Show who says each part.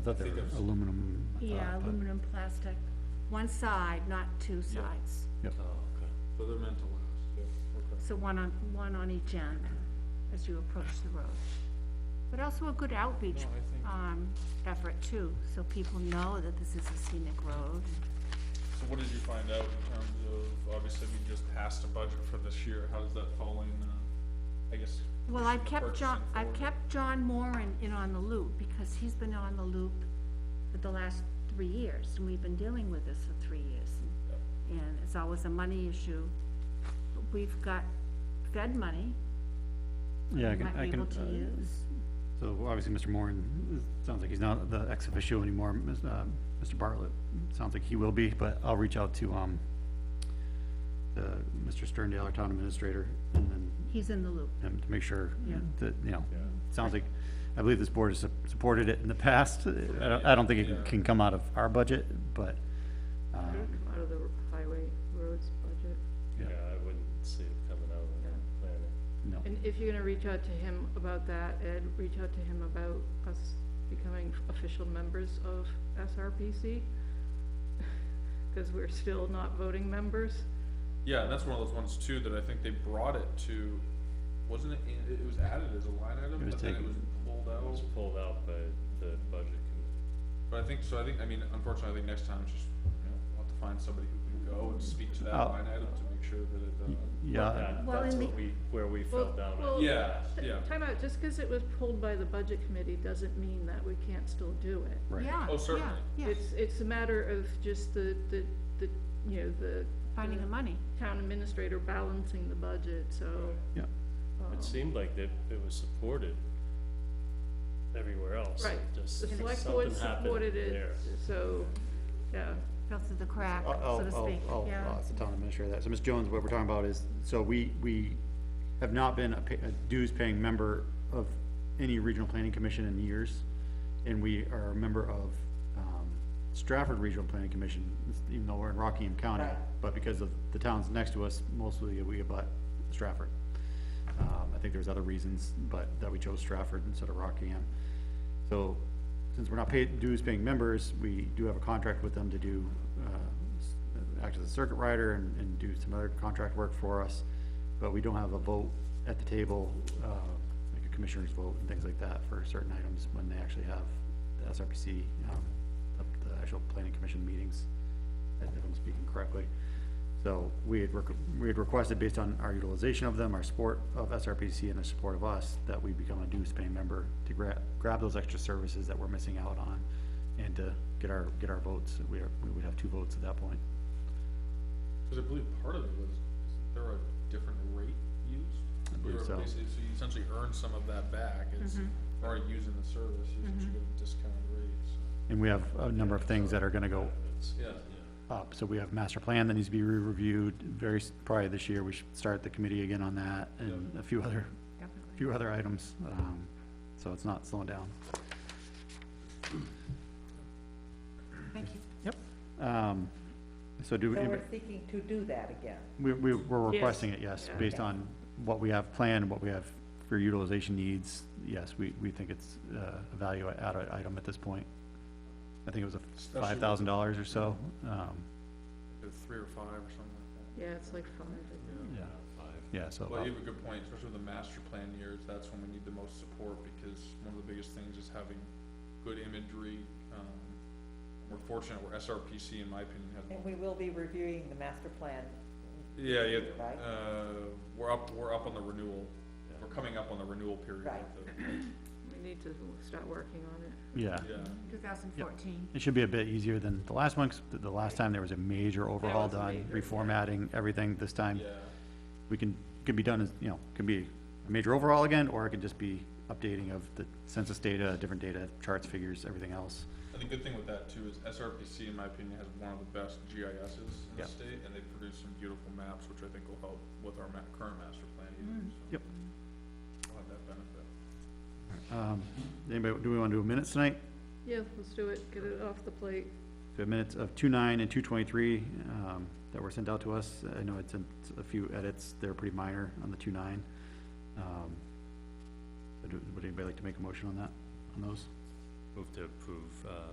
Speaker 1: I thought they were aluminum.
Speaker 2: Yeah,
Speaker 3: Uh,
Speaker 2: aluminum, plastic, one side, not two
Speaker 3: Yeah.
Speaker 2: sides.
Speaker 1: Yep.
Speaker 3: So they're meant to last, yeah, okay.
Speaker 2: So one on, one on each end as you approach the road. But also a good outreach,
Speaker 3: No, I think-
Speaker 2: um, effort too, so people know that this is a scenic road.
Speaker 3: So what did you find out in terms of, obviously, we just passed a budget for this year, how does that fall in, uh, I guess?
Speaker 2: Well, I've
Speaker 3: pushing the
Speaker 2: kept John,
Speaker 3: purchasing
Speaker 2: I've
Speaker 3: forward?
Speaker 2: kept John Moran in on the loop, because he's been on the loop for the last three years, and we've been dealing with this for three years. and- And it's always a money issue. But We've got Fed money,
Speaker 1: Yeah, I
Speaker 2: we
Speaker 1: can,
Speaker 2: might be
Speaker 1: I can,
Speaker 2: able to
Speaker 1: uh,
Speaker 2: use.
Speaker 1: so obviously Mr. Moran, it sounds like he's not the ex officio anymore, Ms., uh, Mr. Bartlett, sounds like he will be, but I'll reach out to, um, uh, Mr. Sterndale, our town administrator, and then
Speaker 2: He's in the loop.
Speaker 1: him to make sure
Speaker 2: Yeah.
Speaker 1: that, you know, sounds like, I believe this board has sup- supported it in the past. I don't, I don't think it can-
Speaker 3: Yeah.
Speaker 1: can come out of our budget, but, um,
Speaker 4: Out of the highway roads budget.
Speaker 1: Yeah.
Speaker 5: Yeah, I wouldn't see it coming out
Speaker 4: Yeah.
Speaker 5: of planning.
Speaker 1: no.
Speaker 4: And if you're gonna reach out to him about that, Ed, reach out to him about us becoming official members of SRPC. Cause we're still not voting members.
Speaker 3: Yeah, and that's one of those ones too, that I think they brought it to, wasn't it, in- it was added as a line
Speaker 1: It
Speaker 3: item,
Speaker 1: was
Speaker 3: but then it
Speaker 1: taken.
Speaker 3: was pulled
Speaker 5: It was
Speaker 3: out.
Speaker 5: pulled out by the budget committee.
Speaker 3: But I think, so I think, I mean, unfortunately, I think next time, it's just, you know, we'll have to find somebody who can go and speak to that
Speaker 1: Oh.
Speaker 3: line item to make sure that it, uh,
Speaker 1: Yeah,
Speaker 5: That,
Speaker 2: Well,
Speaker 5: that's
Speaker 2: in
Speaker 5: what we, where we fell
Speaker 4: Well,
Speaker 5: down at.
Speaker 4: well,
Speaker 3: yeah,
Speaker 4: t-
Speaker 3: yeah.
Speaker 4: Time out, just cause it was pulled by the budget committee doesn't mean that we can't still do it.
Speaker 1: right.
Speaker 2: Yeah,
Speaker 3: Oh,
Speaker 2: yeah,
Speaker 3: certainly.
Speaker 2: yeah,
Speaker 4: It's, it's a matter of just the, the, the, you know, the.
Speaker 2: finding the money.
Speaker 4: Town administrator balancing the budget, so.
Speaker 1: Yeah,
Speaker 4: um,
Speaker 5: It seemed like that it was supported everywhere else.
Speaker 4: Right.
Speaker 5: It Just
Speaker 4: The select
Speaker 5: something
Speaker 4: board
Speaker 5: happened
Speaker 4: supported
Speaker 5: there.
Speaker 4: it, so, yeah.
Speaker 2: fell through the crack,
Speaker 1: Uh, oh,
Speaker 2: so to speak,
Speaker 1: I'll,
Speaker 2: yeah.
Speaker 1: I'll ask the town administrator that. So, Ms. Jones, what we're talking about is, so we, we have not been a pa- a dues-paying member of any regional planning commission in years, and we are a member of, um, Stratford Regional Planning Commission, even though we're in Rockingham County, but because of the towns next to us, mostly we abut Stratford. Um, I think there's other reasons, but that we chose Stratford instead of Rockingham. So, since we're not paid, dues paying members, we do have a contract with them to do, uh, s- uh, act as a circuit rider and, and do some other contract work for us. But we don't have a vote at the table, uh, like a commissioner's vote and things like that for certain items when they actually have the SRPC, um, the, the actual planning commission meetings, if I'm speaking correctly. So we had, rec- we had requested based on our utilization of them, our support of SRPC and the support of us, that we become a dues paying member to grab, grab those extra services that we're missing out on and to get our, get our votes. We are, we would have two votes at that point.
Speaker 3: cause I believe part of it was, isn't there a different rate used?
Speaker 1: I believe
Speaker 3: You're
Speaker 1: so.
Speaker 3: basically- So you essentially earn some of that back, it's,
Speaker 6: Mm-hmm.
Speaker 3: or using the service, you should get a discounted rate, so.
Speaker 1: And we have a number of things that are gonna go
Speaker 5: It's-
Speaker 3: Yeah,
Speaker 1: up. So we have master plan that needs to be re-reviewed very, s- probably this year. We should start the committee again on that and a few other,
Speaker 2: Definitely.
Speaker 1: few other items. Um, so it's not slowing down.
Speaker 2: Thank you.
Speaker 1: Um, so do.
Speaker 6: So
Speaker 1: anybody-
Speaker 6: we're seeking to do that again.
Speaker 1: We, we, we're
Speaker 4: Yes.
Speaker 1: requesting it, yes,
Speaker 4: Yeah.
Speaker 1: based on what we have planned, what we have for utilization needs, yes, we, we think it's, uh, a value add item at this point. I think it was a
Speaker 3: Especially
Speaker 1: five
Speaker 3: with-
Speaker 1: thousand dollars or so, um,
Speaker 3: either three or five or something like that.
Speaker 4: Yeah, it's like five, I think.
Speaker 1: yeah,
Speaker 5: Five.
Speaker 1: yeah, so.
Speaker 3: Well,
Speaker 1: about-
Speaker 3: you have a good point, especially with the master plan years, that's when we need the most support, because one of the biggest things is having good imagery. Um, We're fortunate, where SRPC, in my opinion, has.
Speaker 6: And we will be reviewing the master plan.
Speaker 3: Yeah, yeah,
Speaker 6: Right.
Speaker 3: uh, we're up, we're up on the renewal, we're coming up on the renewal period.
Speaker 6: Right.
Speaker 3: of the-
Speaker 4: We need to start working on it.
Speaker 1: Yeah,
Speaker 3: Yeah,
Speaker 2: 2014.
Speaker 1: it should be a bit easier than the last one, 'cause the, the last time there was a major overhaul
Speaker 4: was
Speaker 1: done,
Speaker 4: major, yeah.
Speaker 1: reformatting, everything, this time,
Speaker 3: yeah.
Speaker 1: we can, could be done as, you know, could be a major overhaul again, or it could just be updating of the census data, different data, charts, figures, everything else.
Speaker 3: And the good thing with that too is SRPC, in my opinion, has one of the best GISs in
Speaker 1: Yeah.
Speaker 3: the state, and they produce some beautiful maps, which I think will help with our ma- current master plan either, so.
Speaker 1: Yep.
Speaker 3: We'll have that benefit.
Speaker 1: Um, anybody, do we wanna do minutes tonight?
Speaker 4: Yeah, let's do it, get it off the plate.
Speaker 1: We have minutes of two nine and two twenty-three, um, that were sent out to us. I know it's sent a few edits, they're pretty minor on the two nine. Um, Would anybody like to make a motion on that, on those?
Speaker 5: Move to approve, uh,